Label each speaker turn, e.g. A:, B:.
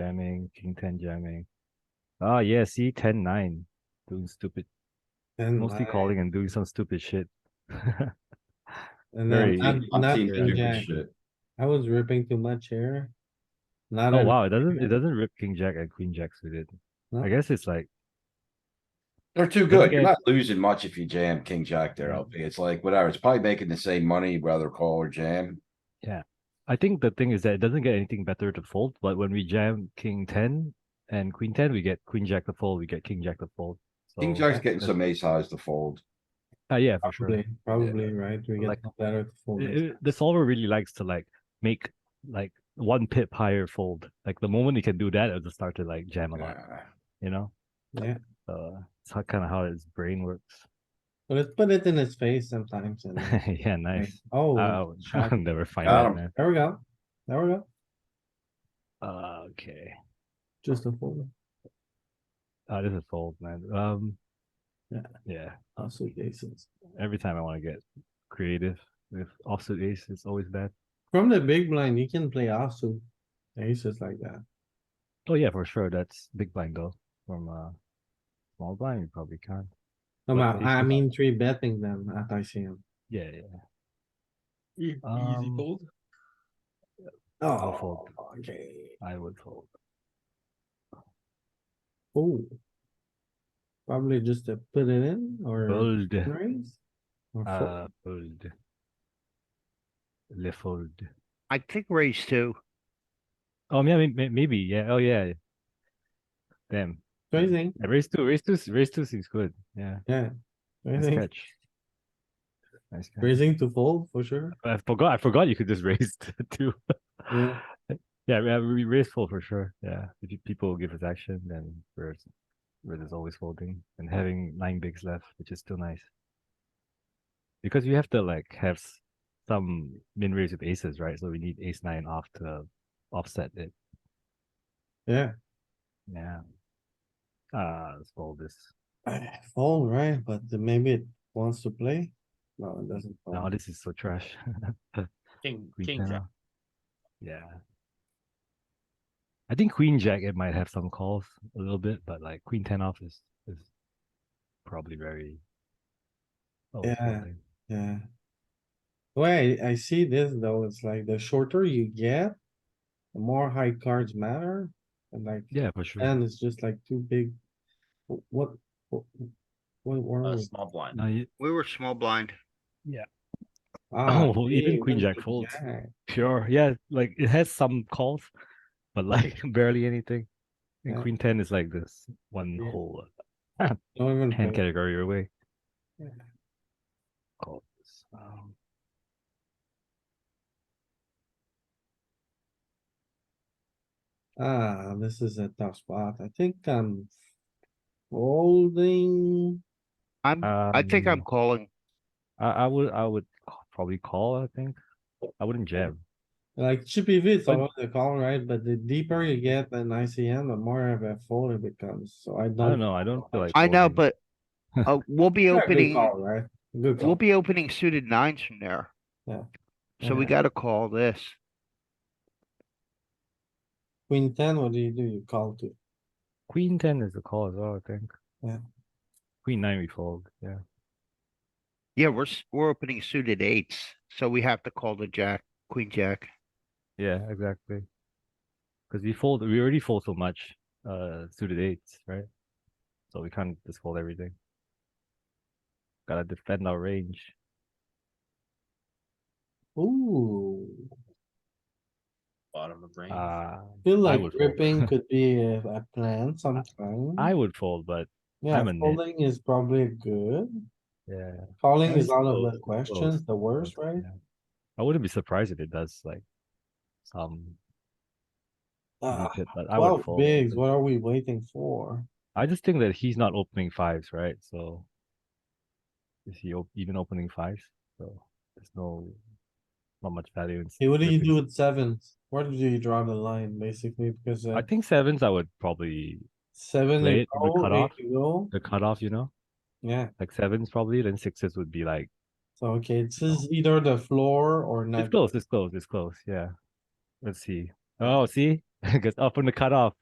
A: jamming, king ten jamming. Oh yeah, see ten nine, doing stupid,
B: And
A: mostly
B: I-
A: calling and doing some stupid shit.
B: And
A: very-
B: then not,
C: I've
B: not
C: seen
B: king
C: stupid
B: jack.
C: shit.
B: I was ripping too much here. Not.
A: Oh
B: a-
A: wow, it doesn't it
B: yeah.
A: doesn't rip king jack and queen jacks with it.
B: No.
A: I guess it's like
C: They're too
A: Don't
C: good. You're
A: get-
C: not losing much if you jam king jack there, LP. It's like whatever. It's probably making the same money, rather call or jam.
A: I think the thing is that it doesn't get anything better to fold, but when we jam king ten and queen ten, we get queen jack to fold, we get king jack to fold. So
C: King jack's getting
A: Oh, that's-
C: some ace highs to fold.
A: uh, yeah, for sure.
B: Probably, probably, right? We get
A: Like-
B: better to fold.
A: It-
B: this.
A: it- the solver really likes to like make like one pip higher fold. Like the moment you can do that, it'll just start to like jam a lot,
C: Yeah.
A: you know?
B: Yeah,
A: So uh, it's how kind of how his brain works.
B: but let's put it in his face sometimes and. like,
A: yeah, nice.
B: Oh,
A: I'll,
B: shot.
A: I'll never find
C: Got
A: out,
C: him.
A: man.
B: there we go. There we go.
A: Uh, okay.
B: Just a fold.
A: Uh, this is fold, man. Um,
B: Yeah.
A: yeah.
B: Also aces.
A: Every time I want to get creative with offsuit ace, it's always bad.
B: From the big blind, you can play offsuit aces like that.
A: Oh yeah, for sure. That's big blind though. From uh, small blind, you probably can't.
B: No,
A: But
B: but I
A: aces-
B: mean, three betting them at ICM.
A: Yeah, yeah.
D: E-, Easy
A: Um,
D: fold.
A: I'll fold.
B: Oh, Okay.
A: I would fold.
B: Oh. Probably just to put it in or
A: Fold.
B: raise. or fold.
A: Uh, fold. Le fold.
E: I think raise two.
A: Oh yeah, may- may- maybe. Yeah. Oh yeah. Damn.
B: Raising,
A: Yeah, raise two. Raise two. s- Raise two seems good. Yeah.
B: yeah.
A: Nice
B: Raising,
A: catch. Nice catch.
B: raising to fold for sure.
A: I forgot. I forgot you could just raise two.
B: Yeah.
A: Yeah, we- we raise fold for sure. Yeah, if you- people give us action, then we're we're just always folding and having nine bigs left, which is still nice. Because we have to like have s- some min raise with aces, right? So we need ace nine off to offset it.
B: Yeah,
A: Yeah. Uh, let's fold this.
B: fold, right? But then maybe it wants to play. No, it doesn't.
A: Now
B: fold.
A: this is so trash.
D: King,
A: Queen
D: king,
A: ten
D: jack.
A: off. Yeah. I think queen jack it might have some calls a little bit, but like queen ten off is is probably very. Oh, it's
B: Yeah.
A: folding.
B: Yeah. Wait, I see this though. It's like the shorter you get, the more high cards matter. And like,
A: Yeah, for sure.
B: and it's just like too big. Wh- What? What? What were
D: Uh,
B: we?
D: small blind.
A: No, you-
E: We were small blind.
B: Ah,
A: Oh, even
B: yeah,
A: queen jack
B: queen
A: folds.
B: jack.
A: Sure. Yeah, like it has some calls, but like barely anything. And
B: Yeah.
A: queen ten is like this one
B: Yeah.
A: whole
B: Don't even
A: hand
B: play.
A: category away.
B: Yeah.
A: Calls. Um,
B: Ah, this is a tough spot. I think I'm folding.
E: I'm,
B: Uh,
E: I think I'm
A: um,
E: calling.
A: I, I would I would ca- probably call. I think I wouldn't jam.
B: Like chippy V, it's
A: But-
B: always the call, right? But the deeper you get in ICM, the more of a fold it becomes. So I
A: I don't
B: don't.
A: know. I don't feel like.
E: I know,
A: folding.
E: but, uh, we'll be
B: Yeah, good
E: opening,
B: call, Right? Good call.
E: we'll be opening suited nines from there.
B: Yeah.
E: So we
B: Yeah.
E: gotta call this.
B: Queen ten, what do you do? You call to.
A: Queen ten is the call as well. I think.
B: Yeah.
A: Queen nine we fold. Yeah.
E: Yeah, we're, s- we're opening suited eights, so we have to call the jack, queen jack.
A: Yeah. Exactly. Because we fold. We already fold so much. Uh, suited eights, right? So we can't just fold everything. Gotta defend our range.
B: Ooh,
D: Bottom of range.
A: Uh,
B: feel
A: I
B: like
A: would fold.
B: ripping could be a, a plan sometime.
A: I would fold, but
B: Yeah,
A: I'm a nit.
B: folding is probably good.
A: yeah.
B: Calling
A: I
B: is out
A: suppose-
B: of the
A: suppose,
B: questions, the worst, right?
A: yeah. I wouldn't be surprised if it does like some.
B: Ah,
A: nip it, but I would
B: Twelve
A: fold.
B: bigs, what are we waiting for?
A: I just think that he's not opening fives, right? So is he op- even opening fives? So there's no not much value in. s-
B: Hey, what do you do
A: ripping.
B: with sevens? Where do you draw the line, basically? Because uh,
A: I think sevens. I would probably
B: seven
A: play
B: to
A: it, we
B: go,
A: cut
B: eight
A: off.
B: to go,
A: the cutoff. You know,
B: yeah.
A: like sevens probably. Then sixes would be like
B: So, okay, this
A: Oh.
B: is either the floor or
A: it's
B: not.
A: close, it's close, it's close. Yeah. Let's see. Oh, see, because up on the cutoff,